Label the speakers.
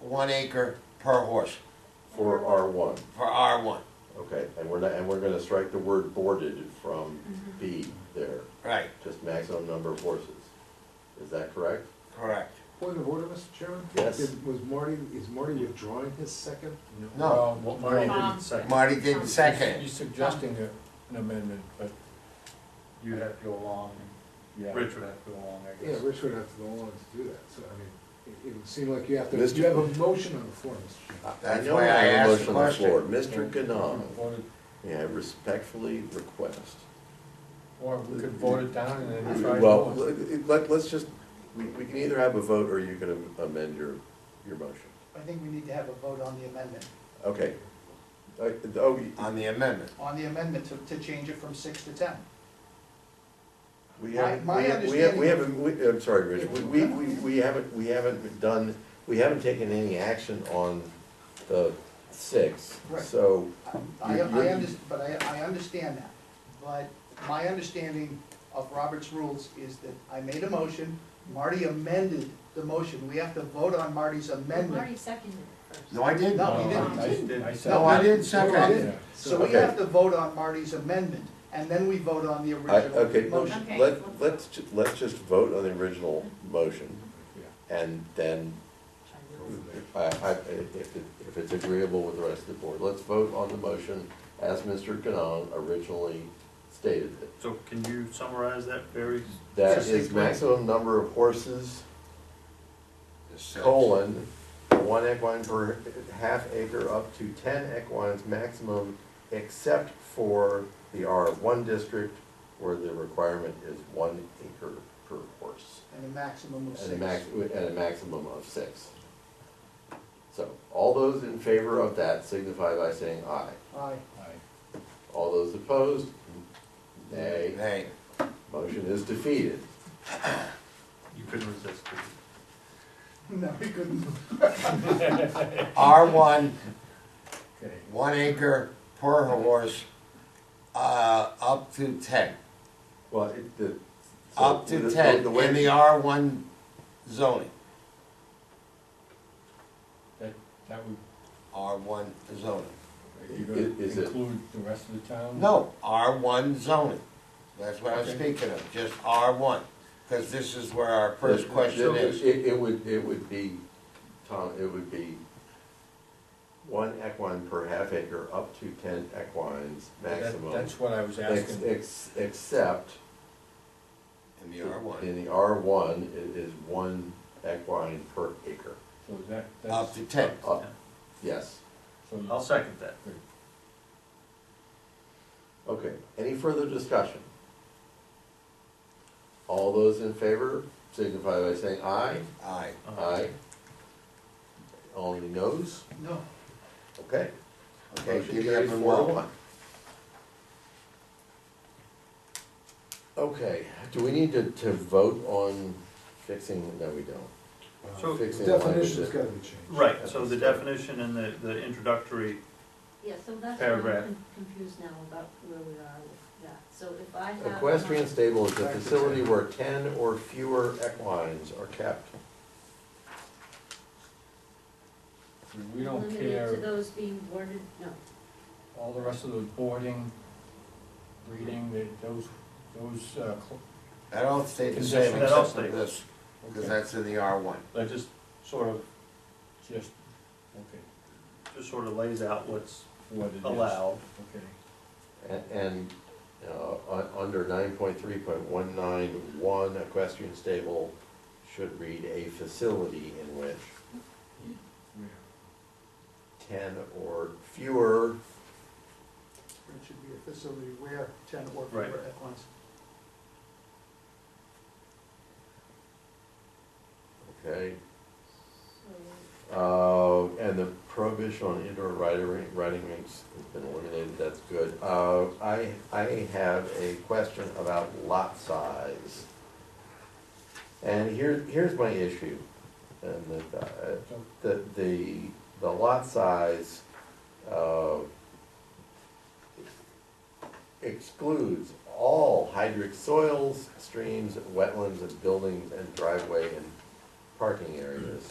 Speaker 1: one acre per horse,
Speaker 2: for R one,
Speaker 1: for R one,
Speaker 2: okay, and we're not, and we're gonna strike the word boarded from B there,
Speaker 1: right,
Speaker 2: just maximum number of horses. Is that correct?
Speaker 1: correct.
Speaker 3: Point of order, Mr. Chairman?
Speaker 2: Yes.
Speaker 3: Did- Was Marty, is Marty withdrawing his second?
Speaker 1: No.
Speaker 4: Well, Marty
Speaker 5: Um,
Speaker 4: didn't second.
Speaker 1: Marty did the
Speaker 4: You're
Speaker 1: second,
Speaker 4: suggesting a- an amendment, but
Speaker 6: You'd have to go along, and Rich would have to go along, I
Speaker 3: Yeah,
Speaker 6: guess.
Speaker 3: Rich would have to go along to do that, so I mean, it- it would seem like you have to,
Speaker 2: Mr.
Speaker 3: you have a motion on the floor, Mr. Chairman.
Speaker 2: I-
Speaker 1: Uh, That's
Speaker 2: know
Speaker 1: why I
Speaker 2: have a
Speaker 1: asked the
Speaker 2: motion on floor.
Speaker 4: Well,
Speaker 2: Mr.
Speaker 4: we could
Speaker 2: Ganong,
Speaker 4: vote it-
Speaker 2: may I respectfully request?
Speaker 4: Or we could vote it down and then try.
Speaker 2: Well,
Speaker 4: another one.
Speaker 2: let- let, let's just, we, we can either have a vote or you can am- amend your, your motion.
Speaker 7: I think we need to have a vote on the amendment,
Speaker 2: Okay. Uh, oh,
Speaker 1: on the amendment.
Speaker 7: on the amendment to, to change it from six to ten.
Speaker 2: we
Speaker 7: My-
Speaker 2: have,
Speaker 7: my
Speaker 2: we have, we have, we
Speaker 7: understanding-
Speaker 2: haven't, we- I'm sorry, Rich, we, we, we we haven't, we haven't done, we haven't taken any action on the six,
Speaker 7: Right.
Speaker 2: so.
Speaker 7: I, I
Speaker 2: You- you-
Speaker 7: understand, but I, I understand that, but my understanding of Robert's rules is that I made a motion, Marty amended the motion, we have to vote on Marty's
Speaker 5: Marty
Speaker 7: amendment.
Speaker 5: seconded it first.
Speaker 1: No, I didn't.
Speaker 7: No, you didn't.
Speaker 4: I- I did- I said-
Speaker 1: No, I didn't
Speaker 7: No, I
Speaker 1: second it.
Speaker 7: didn't. So we
Speaker 2: Okay.
Speaker 7: have to vote on Marty's amendment, and then we vote on the
Speaker 2: I,
Speaker 7: original
Speaker 2: okay,
Speaker 7: motion.
Speaker 5: Okay.
Speaker 2: let, let's, ju- let's just vote on the original motion, and then, I, I, if, it- if it's agreeable with the rest of the board, let's vote on the motion as Mr. Canong originally stated it.
Speaker 6: So can you summarize that very?
Speaker 2: That is
Speaker 6: succinctly?
Speaker 2: maximum number of horses,
Speaker 1: Six.
Speaker 2: colon, one equine per half acre up to ten equines maximum, except for the R one district, where the requirement is one acre per horse.
Speaker 7: And a maximum of
Speaker 2: And a
Speaker 7: six.
Speaker 2: max, and a maximum of six. So, all those in favor of that signify by saying aye.
Speaker 7: Aye.
Speaker 2: All those opposed, nay.
Speaker 1: Hey,
Speaker 2: Motion is defeated.
Speaker 6: You couldn't resist. could you?
Speaker 7: No, we couldn't.
Speaker 1: R one,
Speaker 4: Okay.
Speaker 1: one acre per horse, uh, up to ten,
Speaker 2: Well, it, the. so
Speaker 1: up
Speaker 2: the-
Speaker 1: to
Speaker 2: the-
Speaker 1: ten
Speaker 2: the way-
Speaker 1: in the R one zoning,
Speaker 4: That, that would,
Speaker 1: R one zoning.
Speaker 4: are you gonna
Speaker 2: Is it-
Speaker 4: include the rest of the town?
Speaker 1: No, R one zoning, that's what I'm
Speaker 4: Okay.
Speaker 1: speaking of, just R one, because this is where our first
Speaker 2: the-
Speaker 1: question
Speaker 2: the-
Speaker 1: is.
Speaker 2: It, it would, it would be, Tom, it would be one equine per half acre up to ten equines
Speaker 4: That-
Speaker 2: maximum.
Speaker 4: That's what I was
Speaker 2: ex-
Speaker 4: asking.
Speaker 2: ex- Except
Speaker 1: In the R one,
Speaker 2: In the R one, it is one equine per acre.
Speaker 4: So that,
Speaker 1: up
Speaker 4: that's,
Speaker 1: to ten.
Speaker 2: Up, Uh, yes,
Speaker 4: so you-
Speaker 6: I'll second that.
Speaker 2: okay. Any further discussion? All those in favor signify by saying aye.
Speaker 1: Aye.
Speaker 6: Uh-huh.
Speaker 2: Aye. Only noes?
Speaker 7: No.
Speaker 2: Okay.
Speaker 1: Okay,
Speaker 2: Motion
Speaker 1: give me up
Speaker 2: carries
Speaker 1: and
Speaker 2: four to
Speaker 1: walk.
Speaker 2: one. Okay, do we need to, to vote on fixing, no, we don't.
Speaker 6: So-
Speaker 2: Fixing language
Speaker 3: Uh, Definition's
Speaker 2: that-
Speaker 3: gotta be changed.
Speaker 6: Right, so the definition and the, the introductory,
Speaker 5: Yeah, so that's where I'm
Speaker 6: Paragraph.
Speaker 5: con- confused now about where we are with that. So if I have.
Speaker 2: Equestrian
Speaker 5: my-
Speaker 2: stable is a facility where ten or fewer equines are kept.
Speaker 4: we don't
Speaker 5: Limited to
Speaker 4: care,
Speaker 5: those being boarded, no.
Speaker 4: all the rest of the boarding, breeding, that, those, those, uh, cl-
Speaker 1: That all stayed the
Speaker 4: That
Speaker 1: same
Speaker 6: all
Speaker 1: except for
Speaker 6: stayed.
Speaker 1: this, because
Speaker 4: okay,
Speaker 1: that's in the R one.
Speaker 6: that just sort of,
Speaker 4: just, okay,
Speaker 6: just sort of lays out what's
Speaker 4: what it is.
Speaker 6: allowed.
Speaker 4: Okay.
Speaker 2: A- And, uh, un- under nine point three point one nine one, equestrian stable should read a facility in which
Speaker 4: Yeah.
Speaker 2: ten or fewer,
Speaker 7: It should be a facility where ten or fewer
Speaker 6: Right.
Speaker 7: equines.
Speaker 2: okay?
Speaker 5: So
Speaker 2: Uh, and the prohibition on indoor riding, ring- riding rinks has been eliminated, that's good. Uh, I, I have a question about lot size. And here, here's my issue, and the, uh,
Speaker 4: So
Speaker 2: the, the, the lot size, uh, excludes all hydric soils, streams, wetlands, and buildings, and driveway and parking areas.